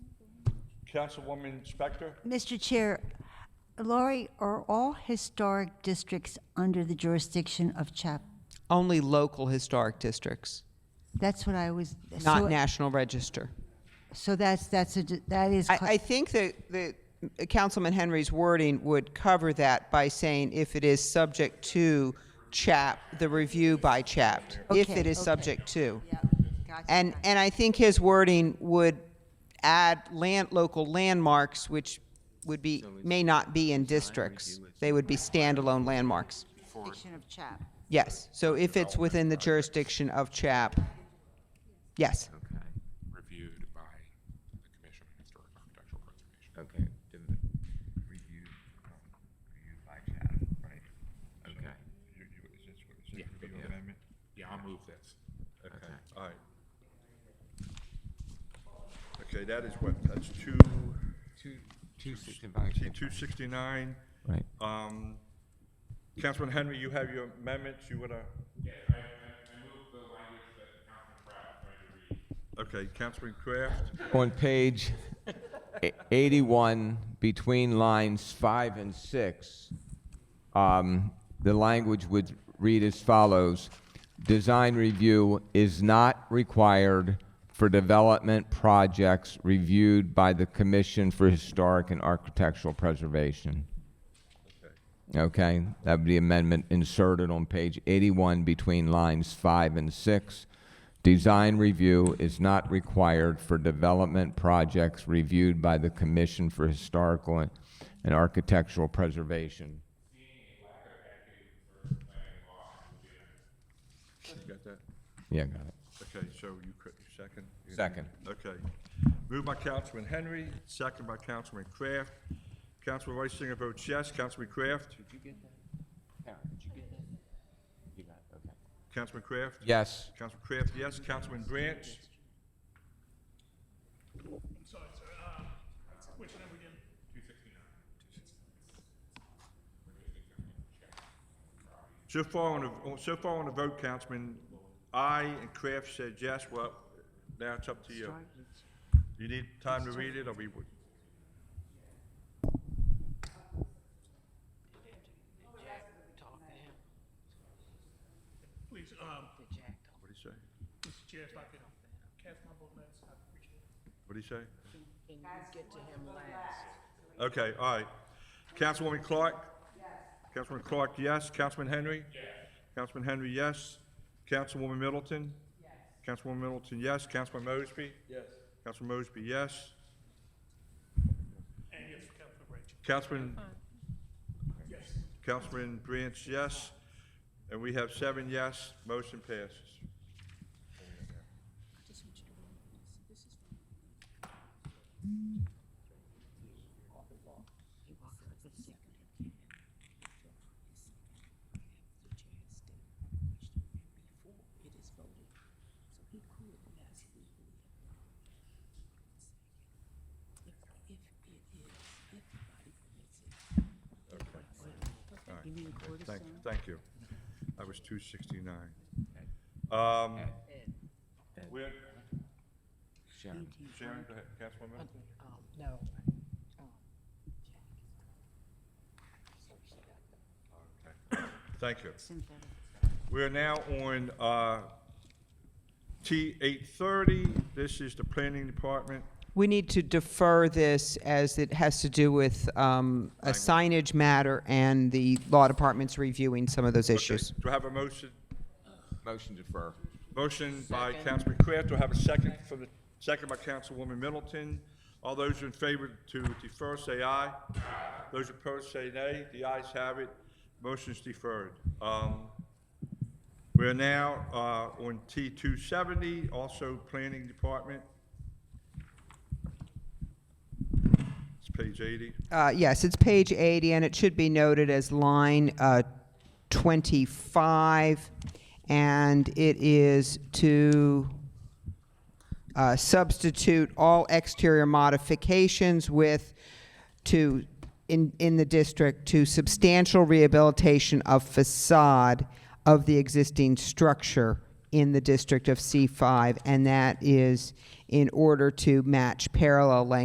Councilwoman Spector? Mr. Chair, Laurie, are all historic districts under the jurisdiction of CHAP? Only local historic districts, That's what I was. so- not National Register. So that's, that's, a di- that is. I, cla- I think that, that Councilman Henry's wording would cover that by saying if it is subject to chap, the review by chapped, if Okay, it is okay. subject to. Yeah, gotcha, And, gotcha. and I think his wording would add land, local landmarks, which would be, may not be in districts. They would be standalone landmarks. Jurisdiction of CHAP. Yes, so if it's within the jurisdiction of chap, yes. Okay, reviewed by the Commission on Historic Architectural Preservation. okay. Did- Reviewed, um, reviewed by Chad, right? Okay, You, you, is this what, is Yeah, this your yeah. amendment? Yeah, I'll move this. okay. All right. Okay, that is what, that's two, Two, two sixty-five. see, 269. Right. Um, Councilman Henry, you have your amendments, you wanna? Yeah, I, I move the language that Councilman Kraft tried to read. Okay, Councilman Kraft, On page e- 81, between lines five and six, um, the language would read as follows. Design review is not required for development projects reviewed by the Commission for Historic and Architectural Preservation. Okay, that would be amendment inserted on page 81 between lines 5 and 6. Design review is not required for development projects reviewed by the Commission for Historical and- and Architectural Preservation. you got that? Yeah, got it. Okay, so you could, second? Second. Okay. Moved by Councilman Henry, second by Councilman Kraft. Councilman Reisinger votes yes. Councilman Kraft? Did you get that? Karen, did you get that? You got, it, okay. Councilman Kraft? Yes. Councilman Kraft, yes. Councilman Branch? I'm sorry, sir. Uh, which number again? So far on the, so far on the vote, Councilman, I and Kraft said yes. Well, now it's up to you. You need time to read it, or we would? Please, um, What'd he say? Mr. Chair, if I could cast my vote last, I'd appreciate it. What'd he say? Can you get to him last? Okay, all right. Councilwoman Clark? Yes. Councilman Clark, yes. Councilman Henry? Yes. Councilman Henry, yes. Councilwoman Middleton? Yes. Councilwoman Middleton, yes. Councilman Mosby? Yes. Councilman Mosby, yes. And yes, for Councilman Rachel. Councilman, Yes. Councilman Branch, yes. And we have seven yes. Motion passes. Thank, thank you. That was two sixty-nine. Um, we're- Sharon. Sharon, go ahead, Councilwoman. Middleton. No. Thank you. We are now on uh, T eight thirty. This is the planning department. We need to defer this as it has to do with um, a signage matter and the law department's reviewing some of those issues. Do I have a motion? Motion to defer. Motion by Councilman Kraft. Do I have a second for the, second by Councilwoman Middleton? All those in favor to defer, say aye. Those opposed, say nay. The ayes have it. Motion is deferred. Um, We are now uh, on T two seventy, also planning department. It's page eighty. Uh, Yes, it's page 80, and it should be noted as line uh, 25, and it is to uh, substitute all exterior modifications with, to, in, in the district, to substantial rehabilitation of facade of the existing structure in the district of C5, and that is in order to match parallel language